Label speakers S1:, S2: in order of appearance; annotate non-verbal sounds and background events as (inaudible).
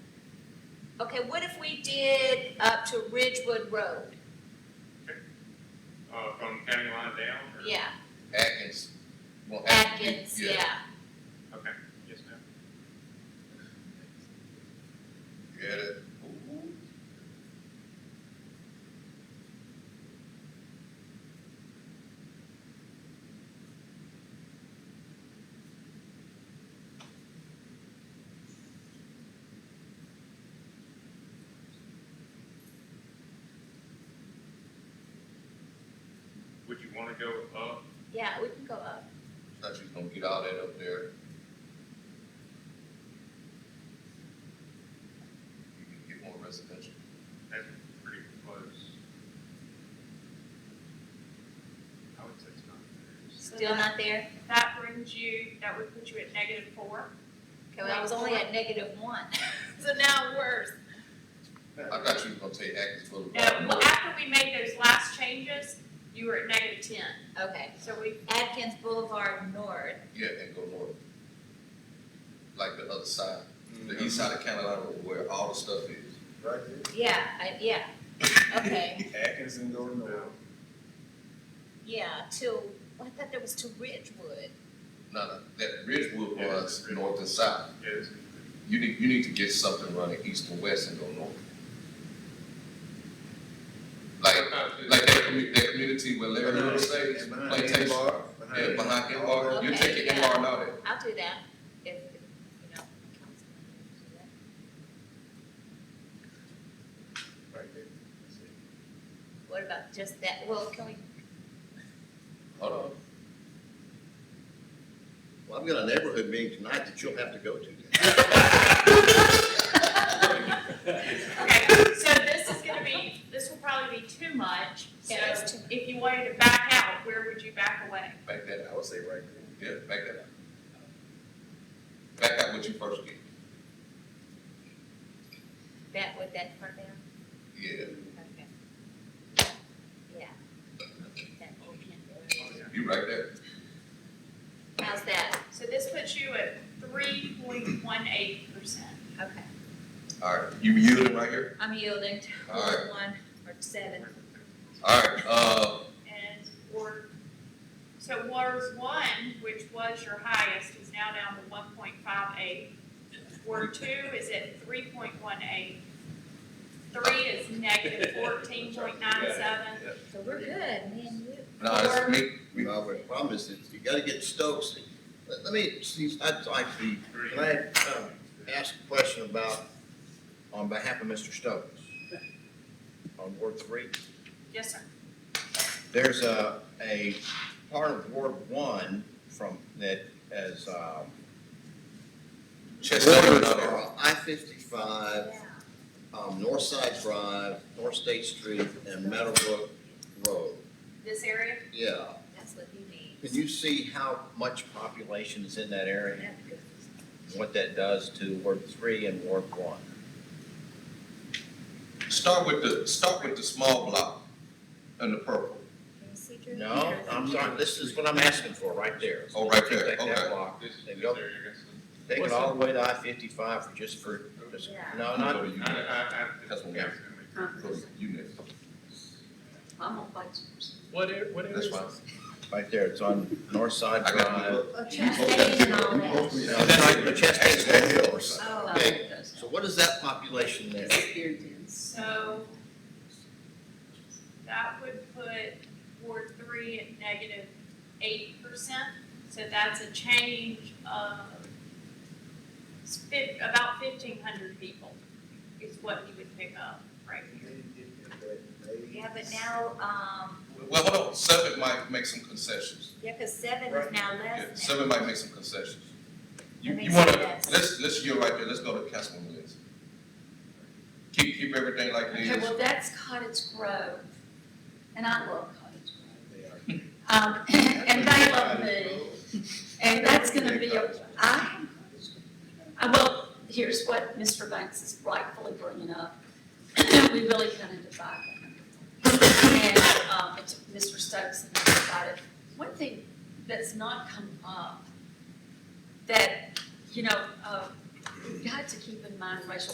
S1: Okay, what if we did up to Ridgewood Road?
S2: Uh, from county line down? or-
S1: Yeah,
S3: Atkins. well,
S1: Atkins, yeah.
S2: Okay, yes, ma'am.
S3: You had it?
S2: Would you wanna go up?
S1: Yeah, we can go up.
S3: Thought you was gonna get all that up there. You can get more residential.
S2: That's pretty close. I would say it's not.
S1: Still not there?
S4: That brings you, that would put you at negative four.
S1: Okay, well, I was only at negative one.
S4: So now worse.
S3: I thought you was gonna say Atkins Boulevard.
S4: No, uh, well,
S3: North.
S4: after we made those last changes, you were at negative ten.
S1: Okay,
S4: So we,
S1: Atkins Boulevard North.
S3: Yeah, and go north. Like the other side,
S2: Mm-hmm.
S3: the east side of Carolina where all the stuff is.
S5: Right
S1: Yeah, I, yeah, okay,
S5: there. Atkins and go north.
S1: yeah, to, oh, I thought there was to Ridgewood.
S3: (laughs) No, no, that Ridgewood
S2: Yeah,
S3: runs
S2: Ridgewood.
S3: north and south.
S2: Yes,
S3: You need, you need to get something running east and west and go north. Like, like that commu- that community where Larry Little stays,
S5: And behind
S3: plantation.
S5: Embar,
S3: Yeah, behind M R, you're
S1: Okay,
S3: taking
S1: yeah.
S3: M R and all that.
S1: I'll do that if, if, you know, council members do that.
S5: Right there.
S1: What about just that, well, can we,
S3: Hold on.
S6: Well, I've got a neighborhood meeting tonight that you'll have to go to.
S4: okay, so this is gonna be, this will probably be too much. So
S1: Yeah, it's too much.
S4: if you wanted to back out, where would you back away?
S3: (laughs) Back that
S5: I would say right there.
S3: out, yeah, back that out. Back out what you first get,
S1: that, with that part down?
S3: yeah,
S1: Okay. Yeah. That whole
S2: oh,
S1: can-
S2: yeah.
S3: you right there.
S1: How's that?
S4: So this puts you at three point one eight percent.
S1: Okay,
S3: Alright, you yielding right here?
S1: I'm yielding to
S3: All right.
S1: one or seven.
S3: Alright, uh,
S4: And, or, so Ward One, which was your highest, is now down to one point five eight. Ward Two is at three point one eight. Three is negative fourteen point nine seven.
S1: So we're good, me and you.
S3: no, it's me, we,
S6: Well, but the problem is, is you gotta get Stokes. Let, let me, see, I'd like to,
S2: Three.
S6: can I, um, ask a question about, on behalf of Mr. Stokes? On Ward Three?
S4: Yes, sir.
S6: There's a, a part of Ward One from, that is, um,
S3: Chestnut Hill,
S6: borders
S3: no, no.
S6: are I fifty-five, um, North Side Drive, North State Street, and Meadowbrook Road.
S4: This area,
S6: Yeah,
S1: That's what you need.
S6: Can you see how much population is in that area?
S1: That'd be good.
S6: and What that does to Ward three and Ward one?
S3: start with the, start with the small block and the purple,
S1: Can you see Drew?
S6: No, I'm sorry, this is what I'm asking for, right there.
S3: oh, right there,
S6: Take that
S3: okay.
S6: block,
S2: This,
S6: There
S2: this
S6: you go.
S2: area, I guess.
S6: take it all the way to I fifty-five for just for, just,
S1: Yeah.
S6: no, Uh, not,
S3: You
S2: I, I, I.
S3: That's what we have.
S2: Uh-huh.
S3: go to- You next,
S1: I'm on budget.
S7: What are, what are?
S3: that's fine.
S6: right there, it's on North Side
S3: I got
S6: Drive.
S3: you.
S1: Okay.
S3: You hope
S1: Chastain and all
S3: that- you hope
S1: that.
S3: we-
S6: No, that's right, the Chastain Street Hills.
S1: Oh.
S6: Okay, so what is that population there?
S4: so that would put Ward Three at negative eight percent. So that's a change of it's fif- about fifteen hundred people is what you would pick up right here.
S1: Yeah, but now, um,
S3: Well, hold on, seven might make some concessions,
S1: yeah, cause seven is
S5: Right.
S1: now
S3: yeah,
S1: less now.
S3: seven might make some concessions. You,
S1: That
S3: you
S1: makes
S3: wanna,
S1: sense.
S3: let's, let's, you're right there, let's go to Councilwoman Lindsay. Keep, keep everything like
S8: Okay,
S3: this,
S8: well, that's Cottage Grove, and I love Cottage Grove.
S1: (laughs)
S8: Um, and they love me, and that's gonna be, a I, I- well, here's what Mr. Banks is rightfully bringing up. (clears throat) We really kind of divide them. And, um, it's Mr. Stokes and I divided. One thing that's not come up, that, you know, uh, you have to keep in mind racial